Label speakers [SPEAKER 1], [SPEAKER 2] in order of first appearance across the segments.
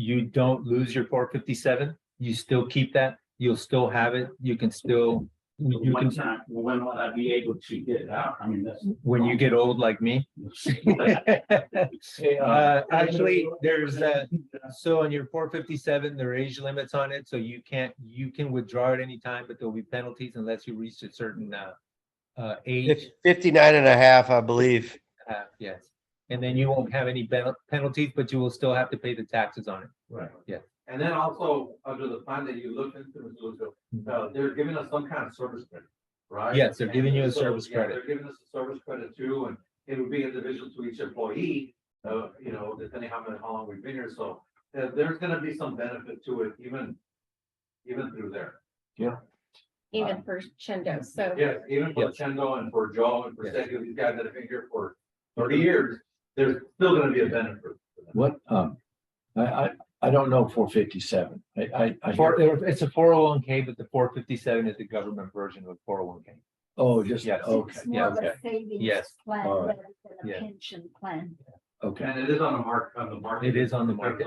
[SPEAKER 1] you don't lose your four fifty-seven, you still keep that, you'll still have it, you can still, you
[SPEAKER 2] One
[SPEAKER 1] can,
[SPEAKER 2] time, when will I be able to get it out? I mean, that's.
[SPEAKER 1] when you get old like me. Uh, actually, there's a, so on your four fifty-seven, there are age limits on it, so you can't, you can withdraw at any time, but there'll be penalties unless you reach a certain, uh, uh, age.
[SPEAKER 3] It's 59 and a half, I believe.
[SPEAKER 1] Uh, yes, and then you won't have any pen- penalties, but you will still have to pay the taxes on it.
[SPEAKER 2] Right.
[SPEAKER 1] Yeah.
[SPEAKER 4] And then also, under the fund that you looked into, Mr. Lucio,
[SPEAKER 5] Mm-hmm.
[SPEAKER 4] uh, they're giving us some kind of service credit, right?
[SPEAKER 1] Yes, they're giving you a
[SPEAKER 4] And so,
[SPEAKER 1] service
[SPEAKER 4] yeah,
[SPEAKER 1] credit.
[SPEAKER 4] They're giving us a service credit too, and it would be individual to each employee, uh, you know, depending how many, how long we've been here, so. uh, there's gonna be some benefit to it, even, even through there.
[SPEAKER 5] Um,
[SPEAKER 6] even for Chendo, so.
[SPEAKER 4] Yes, even for Chendo and for Joe and for
[SPEAKER 1] Yes.
[SPEAKER 4] Sergio, these guys that have been here for thirty years, there's still gonna be a benefit.
[SPEAKER 5] What, um, I, I, I don't know four fifty-seven. I, I, I,
[SPEAKER 1] Four-
[SPEAKER 5] hear-
[SPEAKER 1] it's a four oh one K, but the four fifty-seven is the government version of four oh one K.
[SPEAKER 5] oh, just,
[SPEAKER 1] Yes.
[SPEAKER 5] okay,
[SPEAKER 1] more of a Yes.
[SPEAKER 7] Savings plan
[SPEAKER 5] All right.
[SPEAKER 7] rather than
[SPEAKER 1] Yeah.
[SPEAKER 7] a pension plan.
[SPEAKER 5] okay.
[SPEAKER 4] And it is on the mark, on the
[SPEAKER 1] It
[SPEAKER 4] market.
[SPEAKER 1] is on the market.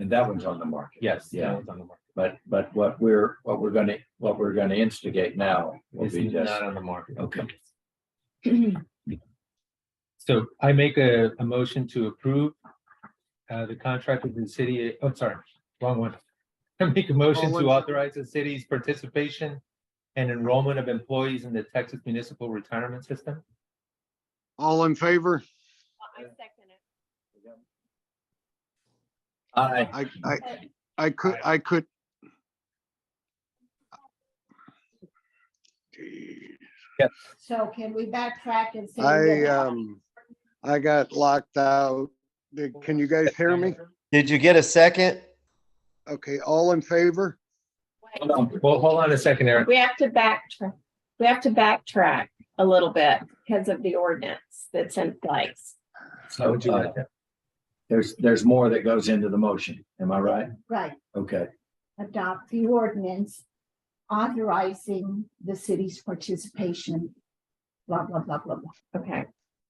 [SPEAKER 5] And that one's on the market.
[SPEAKER 1] Yes. that
[SPEAKER 5] Yeah.
[SPEAKER 1] one's on the market.
[SPEAKER 5] But, but what we're, what we're gonna, what we're gonna instigate now will
[SPEAKER 1] It's
[SPEAKER 5] be just, Oh.
[SPEAKER 1] not on the market.
[SPEAKER 5] okay.
[SPEAKER 1] So I make a, a motion to approve uh, the contract with the city, oh, sorry, wrong one. I make a motion to authorize the city's participation and enrollment of employees in the Texas Municipal Retirement System.
[SPEAKER 8] All in favor?
[SPEAKER 5] I,
[SPEAKER 8] I, I, I could, I could.
[SPEAKER 7] So can we backtrack and say?
[SPEAKER 8] I,
[SPEAKER 7] that-
[SPEAKER 8] um, I got locked out. Did- Can you guys hear me?
[SPEAKER 3] Did you get a second?
[SPEAKER 8] Okay, all in favor?
[SPEAKER 1] Hold on, Well, hold on a second, Eric.
[SPEAKER 6] We have to backtrack, we have to backtrack a little bit because of the ordinance that's in place.
[SPEAKER 1] How would you like that?
[SPEAKER 5] there's, there's more that goes into the motion. Am I right?
[SPEAKER 7] Right,
[SPEAKER 5] Okay.
[SPEAKER 7] adopt the ordinance authorizing the city's participation, blah, blah, blah, blah, blah.
[SPEAKER 6] Okay,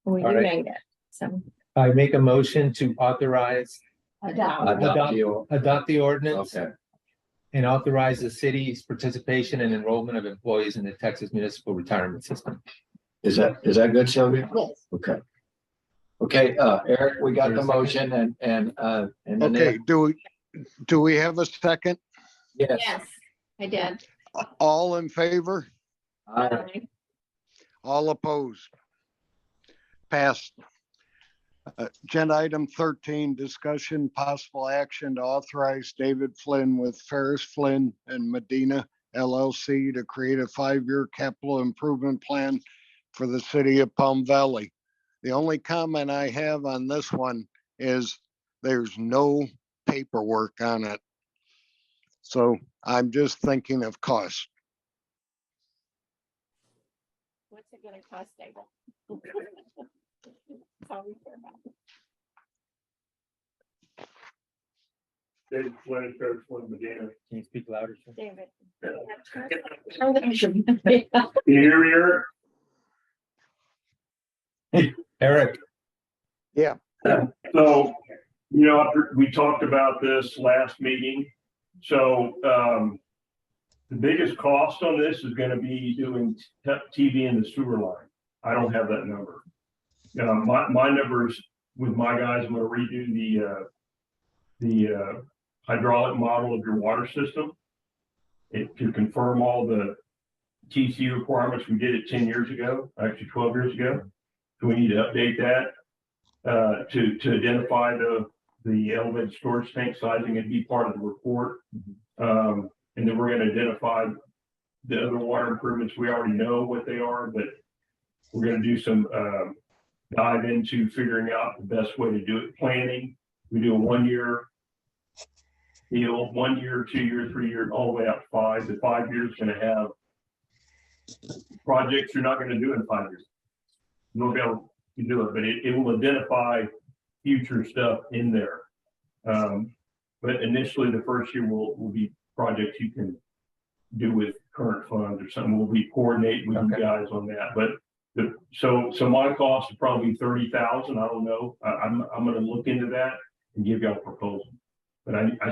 [SPEAKER 6] we
[SPEAKER 1] All right.
[SPEAKER 6] made it, so.
[SPEAKER 1] I make a motion to authorize,
[SPEAKER 7] Adopt,
[SPEAKER 5] Adopt you.
[SPEAKER 1] adopt the ordinance
[SPEAKER 5] Okay,
[SPEAKER 1] and authorize the city's participation and enrollment of employees in the Texas Municipal Retirement System.
[SPEAKER 5] is that, is that good, Sylvia?
[SPEAKER 7] yes.
[SPEAKER 5] Okay. Okay, uh, Eric, we got the
[SPEAKER 1] Is there a
[SPEAKER 5] motion and, and, uh, and then,
[SPEAKER 8] Okay,
[SPEAKER 5] there-
[SPEAKER 8] do, we do we have a second?
[SPEAKER 5] yes.
[SPEAKER 6] Yes, I did.
[SPEAKER 8] All in favor?
[SPEAKER 5] I,
[SPEAKER 8] All opposed? Passed. Uh, Agenda item thirteen, discussion possible action to authorize David Flynn with Ferris Flynn and Medina LLC to create a five-year capital improvement plan for the city of Palm Valley. The only comment I have on this one is there's no paperwork on it. So I'm just thinking of cost.
[SPEAKER 6] What's it gonna cost, David? That's all we care about.
[SPEAKER 1] Can you speak louder? sir?
[SPEAKER 6] David. Turn the-
[SPEAKER 2] Here, here.
[SPEAKER 1] Eric,
[SPEAKER 9] So, you know, after- we talked about this last meeting. So, um, the biggest cost on this is gonna be doing t- TV in the sewer line. I don't have that number. Uh, my, my numbers with my guys, I'm gonna redo the, uh, the, uh, hydraulic model of your water system. It, to confirm all the TC requirements, we did it ten years ago, actually twelve years ago. So we need to update that uh, to, to identify the, the elevated storage tank sizing and be part of the report. Um, and then we're gonna identify the other water improvements. We already know what they are, but we're gonna do some, um, dive into figuring out the best way to do it, planning. We do a one-year deal, one year, two year, three year, all the way up to five. The five years gonna have projects you're not gonna do in five years. You won't be able can do it, but it, it will identify future stuff in there. Um, but initially, the first year will, will be projects you can do with current funds or something. We'll be coordinating with you
[SPEAKER 1] Okay.
[SPEAKER 9] guys on that, but the, so, so my cost is probably thirty thousand. I don't know. I, I'm, I'm gonna look into that and give y'all a proposal. But I, I